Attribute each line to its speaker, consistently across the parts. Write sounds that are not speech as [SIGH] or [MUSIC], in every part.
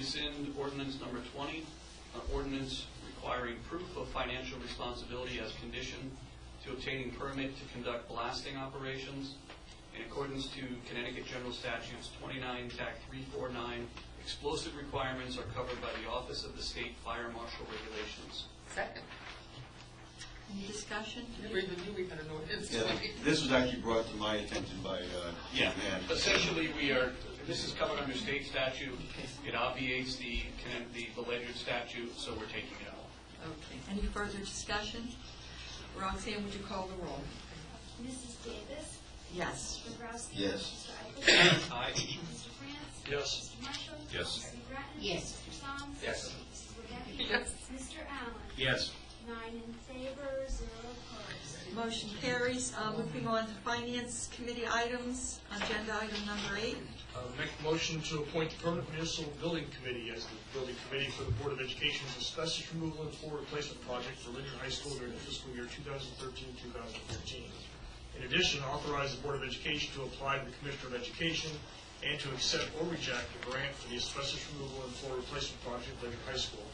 Speaker 1: rescind ordinance number 20, an ordinance requiring proof of financial responsibility as condition to obtaining permit to conduct blasting operations in accordance to Connecticut General Statutes 29, Act 349. Explosive requirements are covered by the Office of the State Fire Marshal Regulations.
Speaker 2: Second.
Speaker 3: Any discussion?
Speaker 2: Never even knew we had an ordinance.
Speaker 4: Yeah, this was actually brought to my attention by, uh.
Speaker 1: Yeah,
Speaker 4: Ann.
Speaker 1: essentially, we are, this is covered under state statute. It obviates the, the the Ledyard statute, so we're taking it out.
Speaker 3: Okay. Any further discussion? Roxanne, would you call the roll?
Speaker 5: Mrs. Davis?
Speaker 3: Yes.
Speaker 5: Mr. Bobrowski?
Speaker 4: Yes.
Speaker 5: Mr. Eichelberg?
Speaker 1: Aye.
Speaker 5: Mr. France?
Speaker 1: Yes.
Speaker 5: Mr. Marshall?
Speaker 6: Yes.
Speaker 5: Mr. McGrattan?
Speaker 2: Yes.
Speaker 5: Mr. Song?
Speaker 1: Yes.
Speaker 5: Mrs. Wodecki?
Speaker 2: Yes.
Speaker 5: Mr. Allen?
Speaker 6: Yes.
Speaker 5: Nine in favor, zero opposed.
Speaker 3: Motion carries. Uh, Moving on to Finance Committee items, agenda item number eight.
Speaker 7: Uh, Make a motion to appoint the permanent municipal building committee as the building committee for the Board of Education's asbestos removal and floor replacement project for Linden High School during the fiscal year 2013-2014. In addition, authorize the Board of Education to apply to the Commissioner of Education and to accept or reject the grant for the asbestos removal and floor replacement project at Linden High School.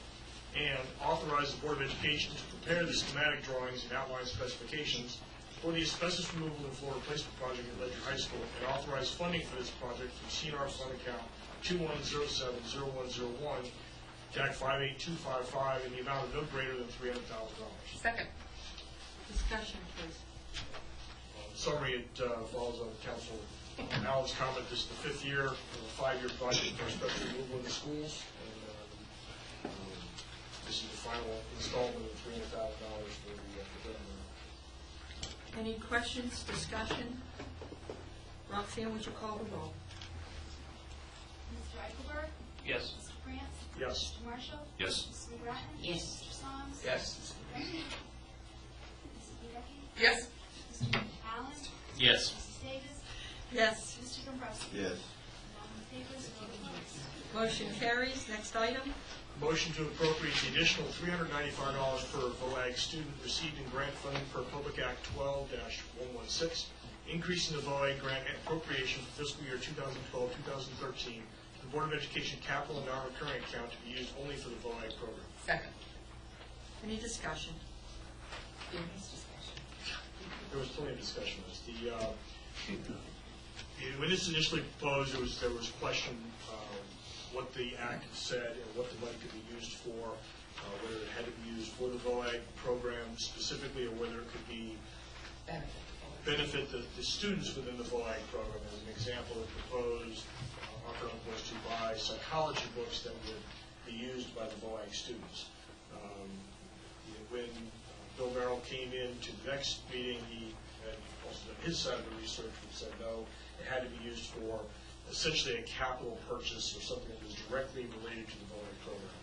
Speaker 7: And authorize the Board of Education to prepare the schematic drawings and outline specifications for the asbestos removal and floor replacement project at Ledger High School and authorize funding for this project from CNR Fund Account 21070101, DAC 58255, in the amount of no greater than $300,000.
Speaker 2: Second.
Speaker 3: Discussion, please.
Speaker 7: Summary, it uh, follows on Council Allen's comment, this is the fifth year of a five-year project for special removal in the schools. and um, um, This is the final installment of $300,000 for the uh, for them.
Speaker 3: Any questions, discussion? Roxanne, would you call the roll?
Speaker 5: Mr. Eichelberg?
Speaker 1: Yes.
Speaker 5: Mr. France?
Speaker 7: Yes.
Speaker 5: Mr. Marshall?
Speaker 6: Yes.
Speaker 5: Mrs. McGrattan?
Speaker 2: Yes.
Speaker 5: Mr. Song?
Speaker 2: Yes.
Speaker 5: Mrs. Wodecki? Mrs. Wodecki?
Speaker 2: Yes.
Speaker 5: Mr. Allen?
Speaker 6: Yes.
Speaker 5: Mrs. Davis?
Speaker 3: Yes.
Speaker 5: Mr. Dombrowski?
Speaker 4: Yes.
Speaker 5: Nine in favor, zero opposed.
Speaker 3: Motion carries. Next item.
Speaker 7: Motion to appropriate the additional three hundred ninety-five dollars per VOAG student received in grant funding per Public Act twelve one one six, increasing the VOAG grant appropriation for fiscal year 2012-2013 to the Board of Education capital and non-recurring account to be used only for the VOAG program.
Speaker 2: Second.
Speaker 3: Any discussion?
Speaker 7: There was plenty of discussion on this. The, uh, it- when this initially proposed, there was, there was question um, what the act said and what the money could be used for, uh, whether it had to be used for the VOAG program specifically, or whether it could be
Speaker 2: Benefit.
Speaker 7: benefit the, the students within the VOAG program. As an example, it proposed, uh, our group was to buy psychology books that would be used by the VOAG students. Um, you know, When uh, Bill Merrill came in to the next meeting, he had also done his side of the research and said, no, it had to be used for essentially a capital purchase or something that was directly related to the VOAG program,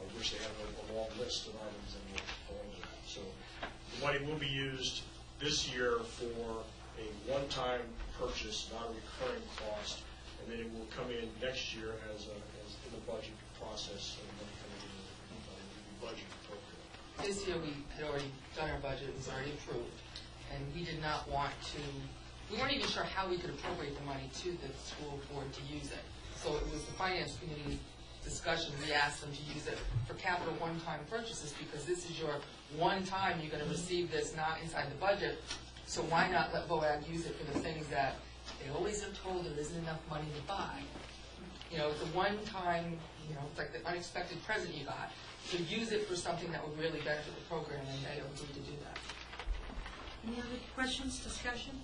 Speaker 7: uh, which they have a a long list of items in the VOAG. Act. So the money will be used this year for a one-time purchase, not a recurring cost, and then it will come in next year as a, as in the budget process, and then coming in uh, the budget appropriate.
Speaker 2: This year, we had already done our budget, it was already approved, and we did not want to, we weren't even sure how we could appropriate the money to the school board to use it. So it was the finance committee's discussion, we asked them to use it for capital one-time purchases, because this is your one time you're gonna receive this, not inside the budget. So why not let VOAG use it for the things that they always are told there isn't enough money to buy? you know, it's a one-time, you know, it's like the unexpected present you got. So use it for something that would really benefit the program, and they agreed to do that.
Speaker 3: Any other questions, discussion?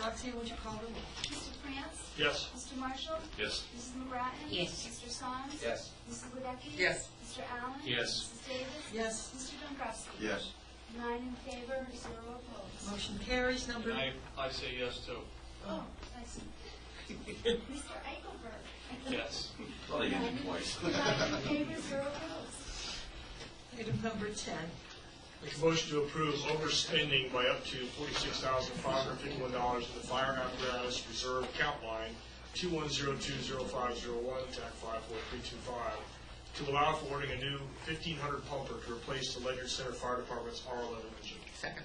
Speaker 3: Roxanne, would you call the roll?
Speaker 5: Mr. France?
Speaker 7: Yes.
Speaker 5: Mr. Marshall?
Speaker 6: Yes.
Speaker 5: Mrs. McGrattan?
Speaker 2: Yes.
Speaker 5: Mr. Song?
Speaker 6: Yes.
Speaker 5: Mrs. Wadecki?
Speaker 2: Yes.
Speaker 5: Mr. Allen?
Speaker 6: Yes.
Speaker 5: Mrs. Davis?
Speaker 3: Yes.
Speaker 5: Mr. Dombrowski?
Speaker 4: Yes.
Speaker 5: Nine in favor, zero opposed.
Speaker 3: Motion carries. Number,
Speaker 1: And I, I say yes too.
Speaker 2: Uh-huh.
Speaker 5: Oh, I
Speaker 2: [LAUGHS]
Speaker 5: see. Mr. Eichelberg?
Speaker 1: Yes.
Speaker 4: Thought I did it twice.
Speaker 5: Nine in favor, zero opposed.
Speaker 3: item number 10.
Speaker 7: Make a motion to approve overspending by up to forty-six thousand five hundred fifty-one dollars in the fire apparatus reserve account line, two-one-zero-two-zero-five-zero-one, TAC five-four-three-two-five, to allow for ordering a new fifteen hundred pumper to replace the Ledyard Center Fire Department's R eleven engine.
Speaker 2: Second.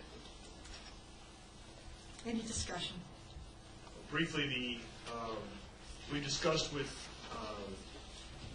Speaker 3: Any discussion?
Speaker 7: briefly, the, um, we discussed with um,